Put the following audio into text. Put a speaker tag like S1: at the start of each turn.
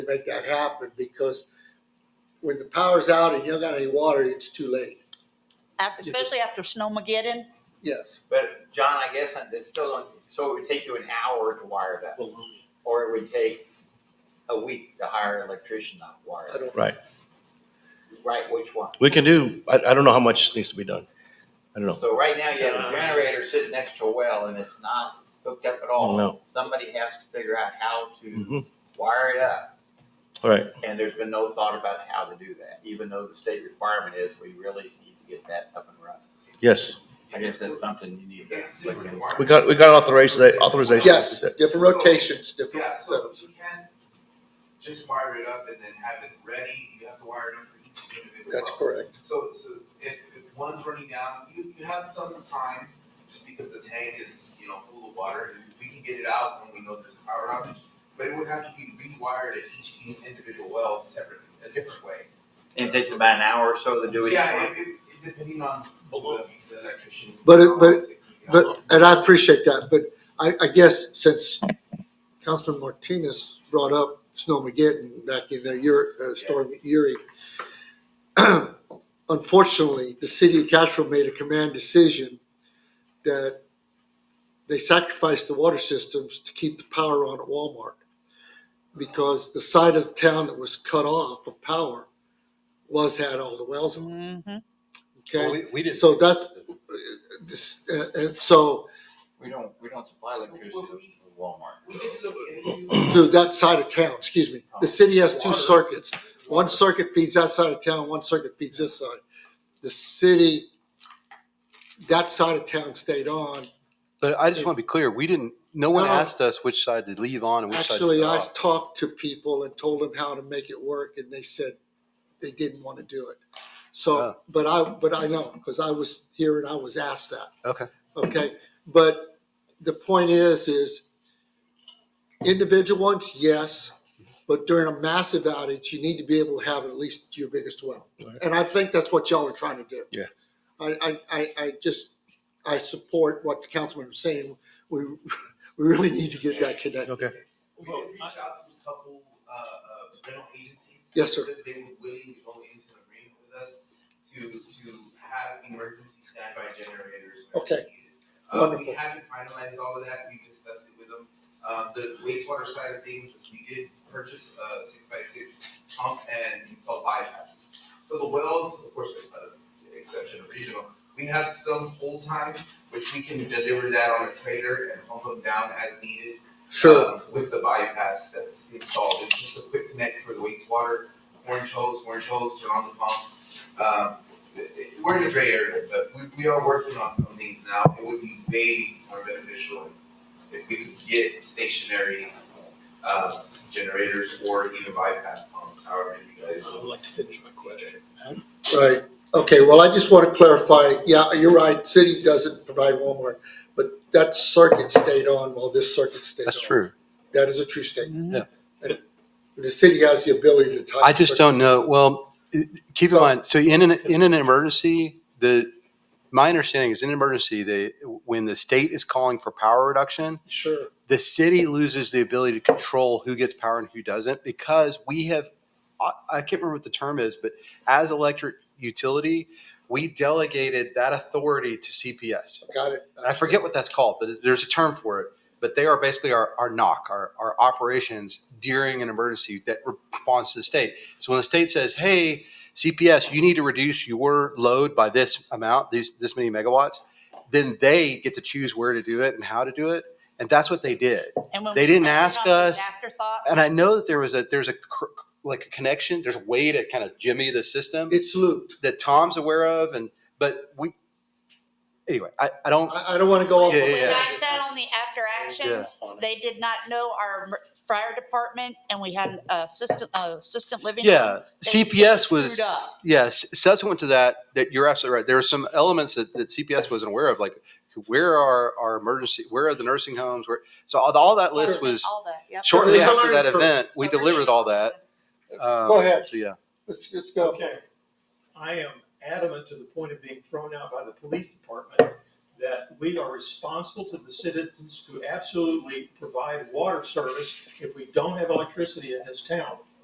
S1: make that happen because when the power's out and you don't got any water, it's too late.
S2: Af- especially after Snowmageddon.
S1: Yes.
S3: But John, I guess that that's still, on- so it would take you an hour to wire that, or it would take a week to hire an electrician to wire
S1: I
S3: it.
S1: don't.
S4: Right.
S3: Right, which one?
S4: We can do, I, I don't know how much needs to be done. I don't know.
S3: So right now you have a generator sitting next to a well and it's not hooked up at all.
S4: No.
S3: Somebody has to figure out how to
S4: Mhm.
S3: wire it up.
S4: All right.
S3: And there's been no thought about how to do that, even though the state requirement is we really need to get that up and running.
S4: Yes.
S3: I guess that's something you need to look into.
S4: We got, we got authorization, authorization.
S1: Yes, different rotations, different
S5: Yeah, so
S1: setups.
S5: you can just wire it up and then have it ready, you have to wire it up for each individual.
S1: That's correct.
S5: So, so if, if one's running down, you, you have some time, just because the tank is, you know, full of water, we can get it out when we know there's a power outage. But it would have to be rewired at each individual well separately, a different way.
S3: And it takes about an hour or so to do it.
S5: Yeah, it, it, it depending on the the electrician.
S1: But it- but- But, and I appreciate that, but I, I guess since Councilman Martinez brought up Snowmageddon back in the year, uh, storm
S5: Yes.
S1: Erie. Unfortunately, the city of Castro made a command decision that they sacrificed the water systems to keep the power on at Walmart. Because the side of the town that was cut off of power was had all the wells on,
S2: Mhm.
S1: okay?
S6: We, we didn't.
S1: So that's- This, uh, and so
S3: We don't, we don't supply electricity to Walmart.
S5: We did look into.
S1: to that side of town, excuse me. The city has two circuits. One circuit feeds that side of town, one circuit feeds this side. The city, that side of town stayed on.
S6: But I just want to be clear, we didn't, no one
S1: No, no.
S6: asked us which side to leave on and which side to
S1: Actually,
S6: leave
S1: I
S6: off.
S1: talked to people and told them how to make it work and they said they didn't want to do it. So,
S6: Oh.
S1: but I, but I know, because I was here and I was asked that.
S6: Okay.
S1: Okay, but the point is, is individual ones, yes, but during a massive outage, you need to be able to have at least your biggest well. And I think that's what y'all are trying to do.
S4: Yeah.
S1: I, I, I, I just, I support what the councilman was saying. We, we really need to get that connected.
S4: Okay.
S5: We did reach out to a couple, uh, uh, rental agencies.
S1: Yes, sir.
S5: They said They were willing to go into an agreement with us to, to have emergency standby generators. whenever
S1: Okay.
S5: needed. Uh,
S1: Wonderful.
S5: we haven't finalized all of that, we've discussed it with them. Uh, the wastewater side of things, is we did purchase a six by six pump and install bypasses. So the wells, of course, with the exception of regional, we have some hold time, which we can deliver that on a trailer and pump them down as needed
S1: Sure,
S5: um, With the bypass that's installed, it's just a quick connect for the wastewater, orange hose, orange hose, turn on the pump. Um, it- it- We're in a gray area, but we, we are working on some things now, it would be way more beneficial if we could get stationary, uh, generators or even bypass pumps, however you guys. I would like to finish my question.
S1: right. Okay, well, I just want to clarify, yeah, you're right, city doesn't provide Walmart, but that circuit stayed on while this circuit stayed on.
S6: That's true.
S1: That is a true statement.
S2: Mhm.
S1: The city has the ability to. tie
S6: I just don't know, well, i- keep in
S1: So-
S6: mind, so in an, in an emergency, the, my understanding is in an emergency, they, when the state is calling for power reduction,
S1: Sure,
S6: the city loses the ability to control who gets power and who doesn't because we have I, I can't remember what the term is but as electric utility we delegated that authority to cps
S1: got it.
S6: and i forget what that's called but there's a term for it but they are basically our, our knock our, our operations during an emergency that responds to the state so when the state says hey cps you need to reduce your load by this amount these this many megawatts then they get to choose where to do it and how to do it and that's what they did
S2: And when
S6: They
S2: we
S6: didn't
S2: finally
S6: ask
S2: got those
S6: us,
S2: Afterthoughts.
S6: and I know that there was a there's a cr- like a connection. There's a way to kind of jimmy the system
S1: It's looped.
S6: that Tom's aware of, and but we anyway. I, I don't.
S1: I, I don't want to go off. on
S6: Yeah,
S1: my-
S2: When
S6: yeah,
S2: I sat on the after actions, they did not know our mer- fire department and we had a assistant, a assistant living.
S6: Yeah,
S2: They
S6: CPS
S2: screwed
S6: was
S2: up.
S6: yes. Subsequent to that, that you're absolutely right. There were some elements that, that CPS wasn't aware of, like where are our emergency, where are the nursing homes, where so all, all that list was
S2: All that, yep.
S6: shortly
S1: There's a
S6: after that
S1: learning curve.
S6: event. We delivered all that. Um,
S1: Go ahead.
S6: So yeah,
S1: Let's, let's go.
S7: Okay. I am adamant to the point of being thrown out by the police department that we are responsible to the citizens to absolutely provide water service if we don't have electricity in this town.